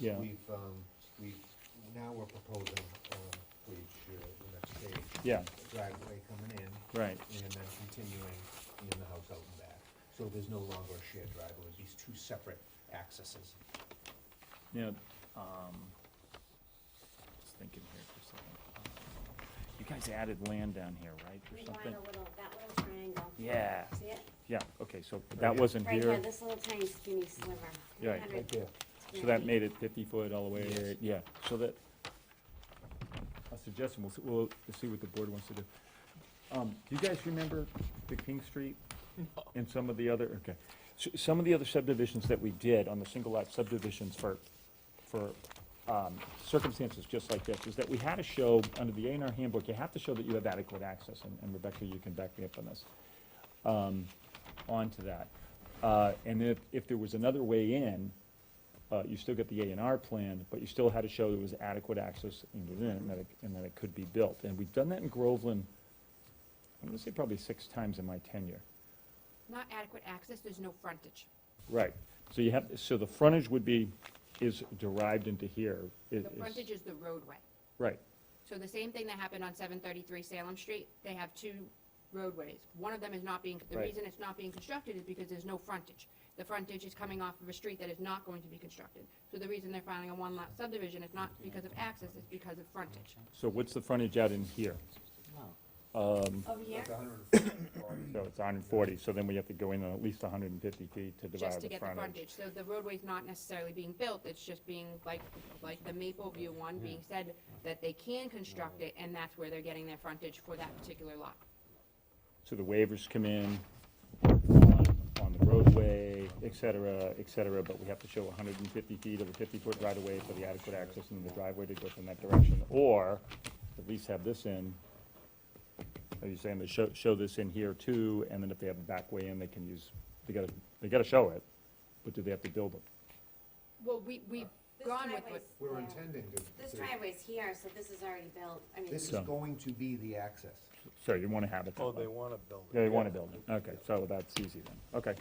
Yeah. We've, um, we've, now we're proposing, um, for each, uh, the next stage. Yeah. a Driveway coming in, Right, and then continuing in the house out and back. So there's no longer a shared driveway, it's these two separate accesses. you know, um, just thinking here for a second. You guys added land down here, right, or Rewind something? a little, that little triangle. Yeah, See it? yeah, okay, so Right that here. wasn't Right here, here, this little tiny skinny sliver. Yeah, right. 100 there. so that square made it fifty foot all the way, Yes. yeah, so that, a suggestion, we'll, s- we'll see what the board wants to do. Um, do you guys remember the King Street? And some of the other, okay, S- some of the other subdivisions that we did on the single lot subdivisions for, for, um, circumstances just like this, is that we had to show, under the A and R handbook, you have to show that you have adequate access, and- and Rebecca, you can back me up on this, um, onto that. Uh, and if, if there was another way in, uh, you still get the A and R plan, but you still had to show there was adequate access in within, and that it, and that it could be built. And we've done that in Groveland, I'm gonna say probably six times in my tenure. Not adequate access, there's no frontage. Right. So you have, so the frontage would be, is derived into here. It The is- frontage is the roadway. Right, So the same thing that happened on seven thirty-three Salem Street, they have two roadways. One of them is not being, the Right. reason it's not being constructed is because there's no frontage. The frontage is coming off of a street that is not going to be constructed. So the reason they're filing a one-lot subdivision is not because of access, it's because of frontage. so what's the frontage out in here? feet. Over here, Like a hundred and fifty So it's hundred and forty, so then we have to go in at least hundred and fifty feet to divide just to the get the frontage. frontage. So the roadway's not necessarily being built, it's just being like, like the Maple View one being said that they can construct it, and that's where they're getting their frontage for that particular lot. So the waivers come in on on the roadway, et cetera, et cetera, but we have to show hundred and fifty feet of a fifty-foot right-of-way for the adequate access in the driveway to go from that direction, or at least have this in. Are you saying they show, show this in here too, and then if they have a back way in, they can use, they gotta, they gotta show it, but do they have to build it? Well, we, we've this gone with what, driveway's We're there. intending to. This to- driveway's here, so this is already built, I mean, This is So- going to be the access. uh, So you wanna have it that Oh, way? they want to build it. Yeah, you wanna build it, okay, so that's easy then, okay.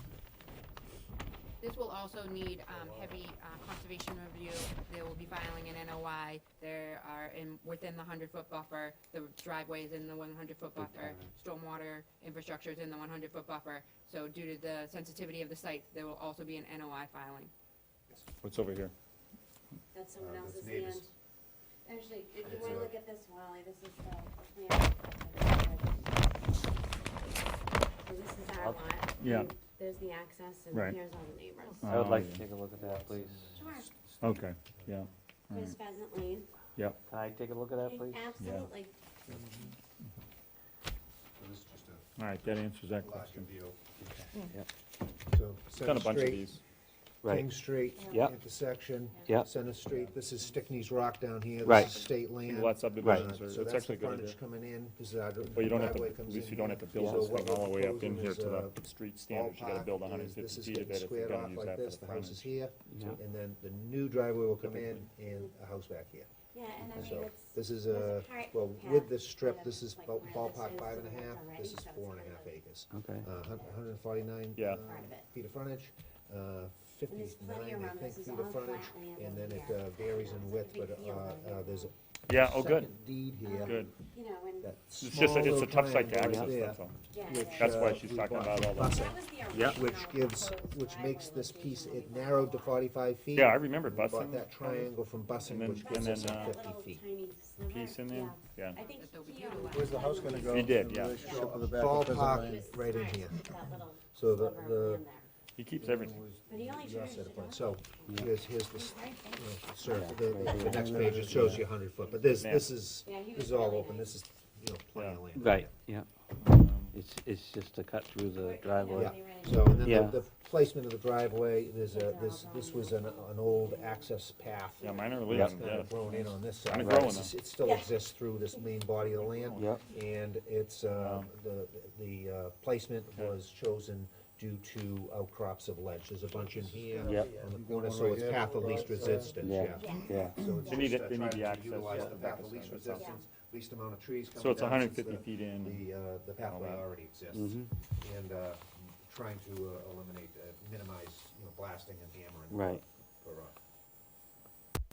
this will also need, um, heavy, uh, conservation review. They will be filing an NOI. There are in, within the hundred foot buffer, the driveway is in the one hundred foot buffer, stormwater infrastructure is in the one hundred foot buffer. So due to the sensitivity of the site, there will also be an NOI filing. What's over here? that's someone Uh, that's else's neighbors. land. Actually, if you It's wanna a- look at this, Wally, this is the, yeah. So this is our I'll- lot. Yeah. and There's the access, Right. and here's all the neighbors. I would Oh, like yeah. to take a look at that, please. Sure, Okay, yeah, Mm. there's Pheasant Lane. yep. Can I take a look at that, please? Absolutely. So this is just a All right, that answers that larger question. view. Yep. So Done a Center bunch of Street, these. King Street Yep. intersection. Yep. Center Street, this is Stickney's Rock down here, Right. this is state land. Single lot subdivisions Uh, are, So it's that's actually the a good idea. frontage coming in, this is our dri- But you don't have to, driveway at comes least in you don't here. have to build So this what thing all the way we're up in here proposing to is, the street uh, standards, you gotta ballpark build is- hundred and this fifty is feet of getting it if you're squared gonna off use like that this, for the The house is frontage. here, Yeah. and then the new driveway will come in, Typically. and a house back here. Yeah, and I mean, So it's. this is there's a, a part well, path with this that strip, this is like ball- where this ballpark is five and and a that's half, already, this is so it's four and a kind half of acres. Okay. Uh, hun- 149. Yeah. uh, Part of it. Feet of frontage, uh, And there's fifty-nine, plenty of I room. think, This is feet all of frontage, flat land and over then it here. uh, varies in It's a width, big but, uh, field over uh, here. there's a. Yeah, oh, good, second Deed here. good. You know, and, that It's just, a- small it's a little tough site to triangle access, there, that's all. yeah. which, there's- That's why uh, she's we talking bought about all Busset, That was the Yeah. original. Which gives, proposed which driveway makes this piece, location it when we narrowed to bought the lot. forty-five feet. Yeah, I remember We Bought busing. that triangle from And Bussing, then- which That's gives us and then, just uh, fifty that little feet. tiny sliver, Piece in there, yeah. I think That'll be he beautiful. owns Where's the house that gonna little go? He did, in yeah. Relationship with the back of Pheasant Ballpark Lane? right in Right, here. that little So the- sliver the- in there. He keeps everything. But he only Your changed set of it plans. up. So here's, here's this, Right there. so the, the- the next page, it shows you hundred foot, but this, Yeah. this is, Yeah, he this was is all really open, nice. this is, you know, plenty of land. Right, yeah. It's, it's just to cut through Or, you the know, driveway. Yeah, they ran so into- and um, Yeah. then the, the placement of the driveway, there's They're a, all this, this grown was an, an old access path. Yeah, mine are It's leaving, kind yeah. of grown in on this Kinda side. growing It's- It still Yeah. exists through this main body of the land. Yep. And it's, uh, the, the uh, placement was chosen due to outcrops of ledge. There's a bunch in here Yep. on the corner, so it's path of least resistance, Yeah. yeah. Yeah, So it's They need just, it- uh, they need trying the to access utilize the to the path back of of least the side. resistance, least amount of trees coming down. So it's since hundred and fifty the- feet in, The, uh, the pathway that. already exists, Mhm. and, uh, trying to uh, eliminate, uh, minimize, you know, blasting and hammering. Right. For, uh,